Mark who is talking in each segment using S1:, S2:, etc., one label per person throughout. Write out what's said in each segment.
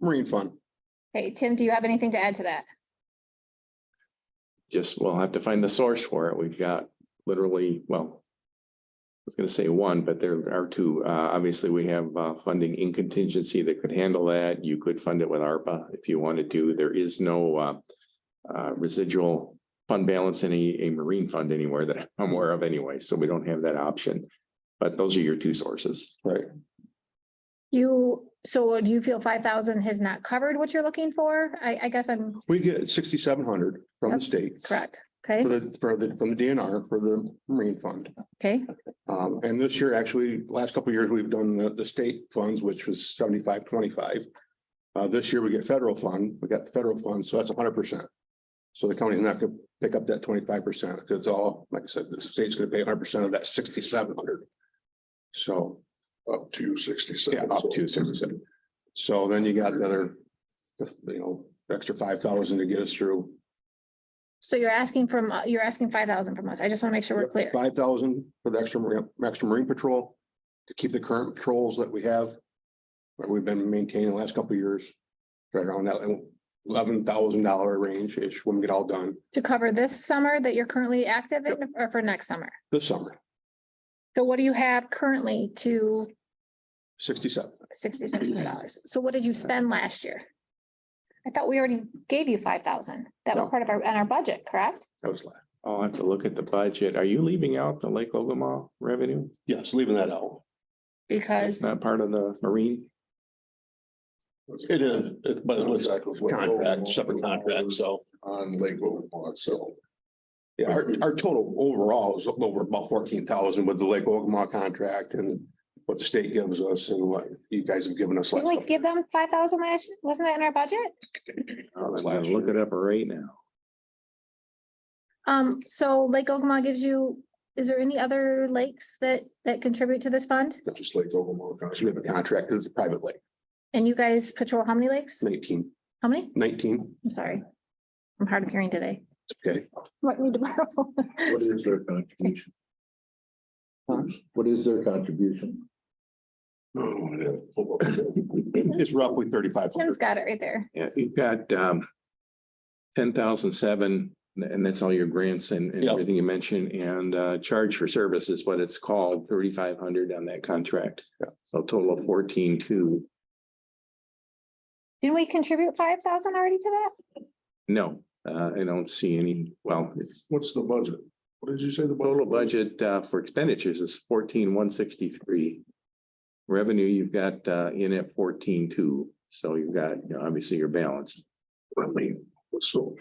S1: Marine Fund.
S2: Okay, Tim, do you have anything to add to that?
S3: just, we'll have to find the source for it. We've got literally, well. I was gonna say one, but there are two. Uh, obviously, we have, uh, funding in contingency that could handle that. You could fund it with ARPA if you wanted to. There is no, uh. Uh, residual fund balance in a, a marine fund anywhere that I'm aware of anyway, so we don't have that option. But those are your two sources.
S1: Right.
S2: You, so do you feel five thousand has not covered what you're looking for? I, I guess I'm
S1: We get sixty-seven hundred from the
S2: Yep.
S1: state.
S2: correct.
S1: For
S2: Okay,
S1: the, for the, from the DNR for the Marine Fund.
S2: okay,
S1: Um, and this year, actually, last couple of years, we've done the, the state funds, which was seventy-five, twenty-five. Uh, this year we get federal fund, we got the federal fund, so that's hundred percent. So the county's not gonna pick up that twenty-five percent, it's all, like I said, the state's gonna pay hundred percent of that sixty-seven hundred. So. Up to sixty-seven. Yeah, up to sixty-seven. So then you got another, you know, extra five thousand to get us through.
S2: so you're asking from, uh, you're asking five thousand from us. I just want to make sure we're clear.
S1: Five thousand for the extra marine, extra marine patrol to keep the current patrols that we have. That we've been maintaining the last couple of years, right around that eleven thousand dollar range-ish when we get all done
S2: To cover this summer that you're currently active in or for next summer?
S1: this summer,
S2: So what do you have currently to
S1: sixty-seven.
S2: sixty-seven hundred dollars? So what did you spend last year? I thought we already gave you five thousand. That was
S1: No.
S2: part of our, on our budget, correct?
S1: That was last.
S3: I'll have to look at the budget. Are you leaving out the Lake Ogama revenue?
S1: Yes, leaving that out.
S3: It's
S2: Because,
S3: not part of the marine?
S4: It is, it- but it was
S1: Contract.
S4: contract, separate contract, so.
S1: On Lake Ogama itself. Yeah, our, our total overall is over about fourteen thousand with the Lake Ogama contract and what the state gives us and what you guys have given us. last
S2: didn't we
S1: couple
S2: give them five thousand last, wasn't that in our budget?
S3: I'm gonna look it up right now.
S2: Um, so Lake Ogama gives you, is there any other lakes that, that contribute to this fund?
S1: Not just Lake Ogama, because we have a contract, it's a private lake,
S2: And you guys patrol how many lakes?
S1: 19,
S2: How many?
S1: 19.
S2: I'm sorry. I'm hard of hearing today.
S1: okay.
S2: Might need to borrow.
S5: What is their contribution?
S1: Huh?
S5: What is their contribution?
S1: It's roughly thirty-five
S2: Tim's
S1: hundred.
S2: got it right there.
S3: Yeah, you've got um. Ten thousand seven, and that's all your grants and and
S4: Yeah.
S3: everything you mentioned, and uh charge for service is what it's called, thirty-five hundred on that contract. So total of fourteen-two,
S2: Didn't we contribute five thousand already to that?
S3: no, uh, I don't see any, well, it's.
S4: What's the budget? What did you say the
S3: Total budget uh for expenditures is fourteen-one sixty-three. Revenue, you've got uh in at fourteen-two, so you've got, you know, obviously your balance.
S5: So.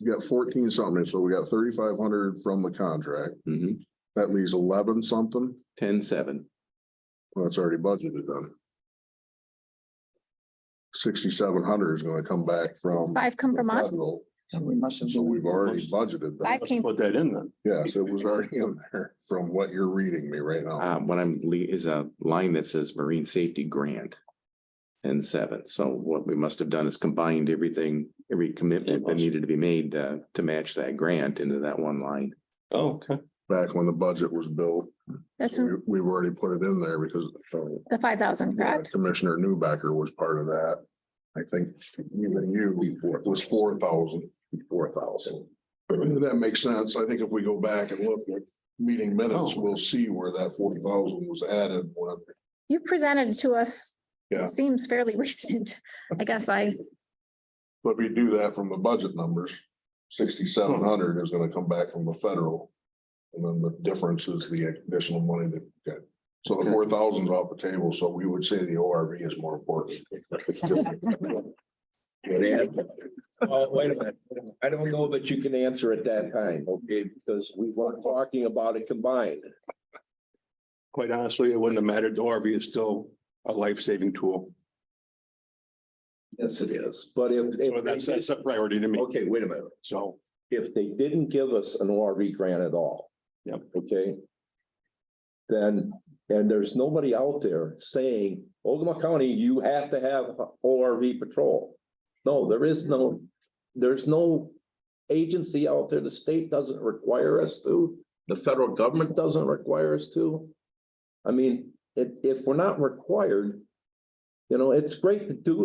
S5: You got fourteen something, so we got thirty-five hundred from the contract,
S3: Mhm.
S5: that leaves eleven something,
S3: ten-seven,
S5: well, that's already budgeted then. Sixty-seven hundred is gonna come back from.
S2: Five come
S5: the
S2: from us?
S5: federal,
S4: And we must.
S5: So we've already budgeted
S2: Five
S5: that,
S1: Let's
S2: came-
S1: put that in then.
S5: yes, it was already in there, from what you're reading me right now.
S3: Uh, what I'm, le- is a line that says marine safety grant. And seven, so what we must have done is combined everything, every commitment that needed to be made uh, to match that grant into that one line.
S4: Oh, Okay.
S5: Back when the budget was built,
S2: That's
S5: so
S2: in
S5: we, we've already put it in there because. uh,
S2: the five thousand,
S5: Yeah,
S2: correct?
S5: Commissioner Newbecker was part of that. I think even you it was four thousand. Four thousand. That makes sense. I think if we go back and look at meeting minutes,
S1: Oh.
S5: we'll see where that forty thousand was added when.
S2: You presented it to us.
S5: Yeah.
S2: Seems fairly recent. I guess I,
S5: But if we do that from the budget numbers, sixty-seven hundred is gonna come back from the federal. And then the difference is the additional money that, we get. so the four thousand's off the table, so we would say the ORV is more important.
S6: Well, wait a minute. I don't know that you can answer at that time, okay, because we were talking about it combined.
S1: Quite honestly, it wouldn't have mattered. The ORV is still a life-saving tool.
S6: Yes, it is. But if,
S1: Well, that's,
S6: if,
S1: that's a priority to me.
S6: okay, wait a minute.
S1: So
S6: If they didn't give us an ORV grant at all.
S1: Yep.
S6: Okay. Then, and there's nobody out there saying, Ogama County, you have to have ORV patrol. No, there is no, there's no agency out there. The state doesn't require us to. The federal government doesn't require us to. I mean, if, if we're not required, then You know, it's great to do